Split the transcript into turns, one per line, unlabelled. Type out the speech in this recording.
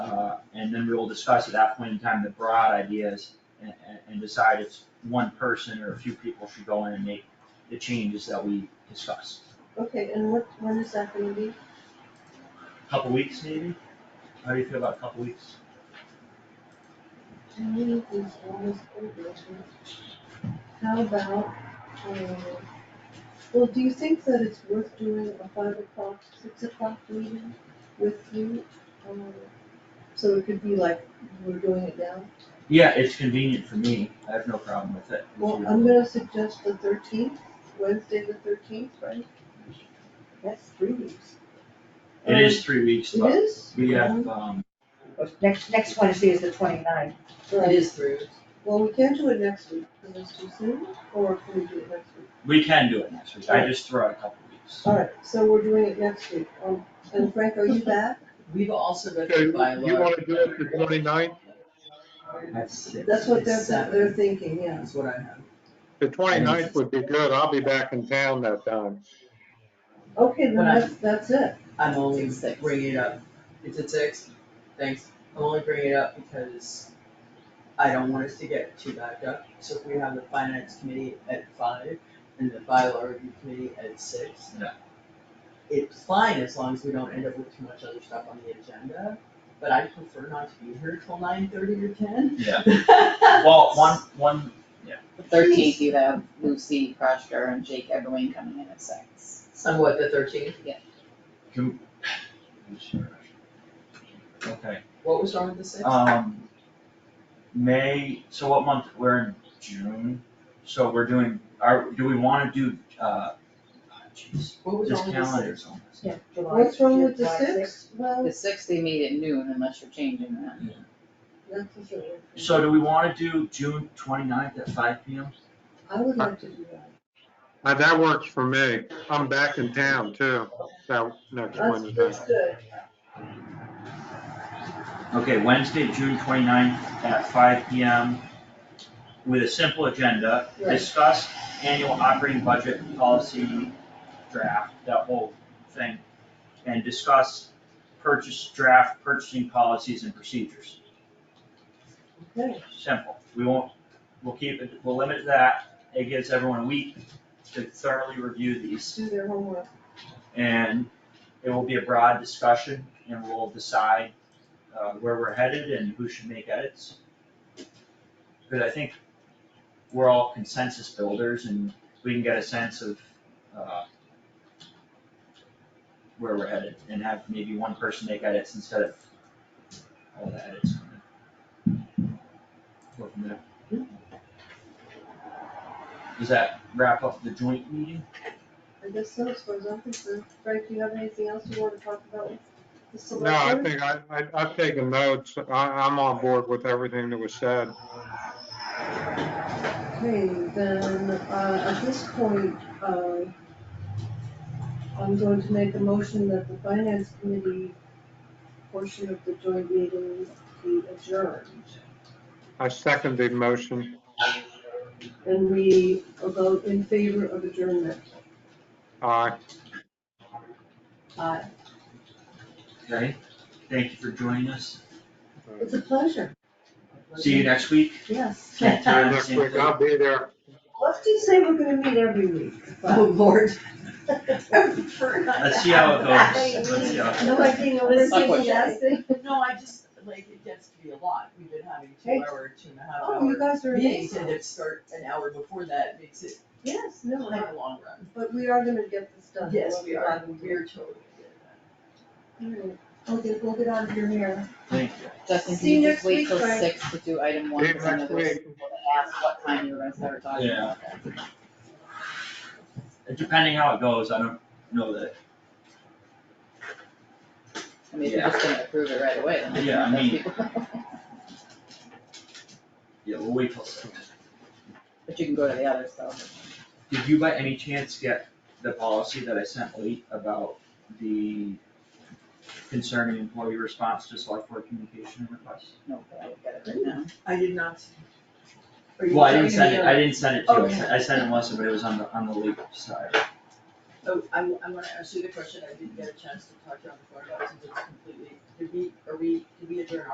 Uh, and then we will discuss at that point in time the broad ideas and, and, and decide if one person or a few people should go in and make the changes that we discussed.
Okay, and what, when is that gonna be?
Couple weeks maybe? How do you feel about a couple weeks?
The meeting is almost over. isn't it? How about, um, well, do you think that it's worth doing a five o'clock, six o'clock meeting with you? Um, So it could be like, we're doing it now?
Yeah, it's convenient for me, I have no problem with it.
Well, I'm gonna suggest the thirteenth, Wednesday the thirteenth, right?
That's three weeks.
It is three weeks,
um, It
but
is? Mm-hmm.
we have, um,
Next, next Wednesday is the twenty-ninth.
Right.
is through.
Well, we can't do it next week, because it's too soon, or can we do it next week?
we can do it next week, I just throw out a couple weeks.
All right, so we're doing it next week, um, and Frank, are you back?
We've also been
Okay,
through by
you
law.
wanna do it the twenty-ninth?
That's what they're, they're thinking, yeah.
That's what I have.
The twenty-ninth would be good, I'll be back in town that time.
Okay, then
But I-
that's, that's it.
I'm only
It's at six.
bringing it up, it's at six, thanks, I'm only bringing it up because I don't want us to get too backed up, so if we have the finance committee at five and the bylaw review committee at six.
Yeah.
It's fine as long as we don't end up with too much other stuff on the agenda, but I prefer not to be here till nine thirty or ten.
Yeah. Well, one, one
The thirteenth, you have Lucy Crusher and Jake Eberling coming in at six.
Somewhat the thirteenth,
Can- Okay,
what was wrong with the sixth?
um, May, so what month, we're in June, so we're doing, are, do we wanna do, uh, ah, jeez,
What was
this
wrong with the sixth?
calendar's almost.
Yeah, July.
What's wrong with the
July
sixth? Well,
The sixth, they meet at noon unless you're changing that.
that's a good one.
So do we wanna do June twenty-ninth at five P M?
I would like to do that.
Uh, that works for me, I'm back in town too, that next
That's,
Wednesday.
that's good.
Okay, Wednesday, June twenty-ninth at five P M. With a simple agenda,
Right.
discuss annual operating budget policy draft, that whole thing. And discuss purchase, draft purchasing policies and procedures.
Okay,
Simple. We won't, we'll keep it, we'll limit that. It gives everyone a week to thoroughly review these.
do their homework.
And it will be a broad discussion and we'll decide uh, where we're headed and who should make edits. Because I think we're all consensus builders and we can get a sense of uh, where we're headed and have maybe one person make edits instead of all the edits. Go from there. Does that wrap up the joint meeting?
I guess so, as far as I'm concerned. Frank, do you have anything else you wanna talk about with the
No, I
selectmen?
think I, I, I've taken notes, I, I'm on board with everything that was said.
Okay, then, uh, at this point, uh, I'm going to make a motion that the finance committee portion of the joint meeting be adjourned.
I second the motion,
And we vote in favor of adjournment.
aye.
Aye.
Okay, thank you for joining us.
It's a pleasure,
See you next week.
yes.
Same
See you
time,
next
same
week,
place.
I'll be there.
Let's just say we're gonna meet every week.
Oh, Lord.
Let's see how it goes. Let's see how it
No, I think we're
Let's not
saying
push it.
yes. thing.
No, I just, like, it gets to be a lot, we've been having two
Hey.
hour, two and a half
Oh, you
hour
guys are
meetings, and
amazing.
if start an hour before that, makes it
Yes, no,
like
I-
a long run.
but we are gonna get this done.
Yes, we are,
We'll be
we are totally good at that.
glad we did. Okay, we'll get out of your hair.
Thank you.
Justin, can
See you
you
next
just wait
week,
till
Frank.
six to do item one?
See you
because I know
next
there's
week.
people that ask what time you were gonna start talking
Yeah.
about that.
Depending how it goes, I don't know that,
I mean, if you're just gonna approve it right away, then there's
Yeah, I
not much
mean-
people.
yeah, we'll wait till six.
But you can go to the other stuff.
Did you by any chance get the policy that I sent late about the concerning employee response to select board communication requests?
No, but I will get it right now.
I did not. Are you
Well, I didn't
talking to
send
me
it,
or-
I didn't send it to you, I
Okay.
sent- I sent it Melissa, but it was on the, on the legal side.
Oh, I, I wanna ask you the question I didn't get a chance to talk to you on the phone about, since it's completely, did we, are we, did we adjourn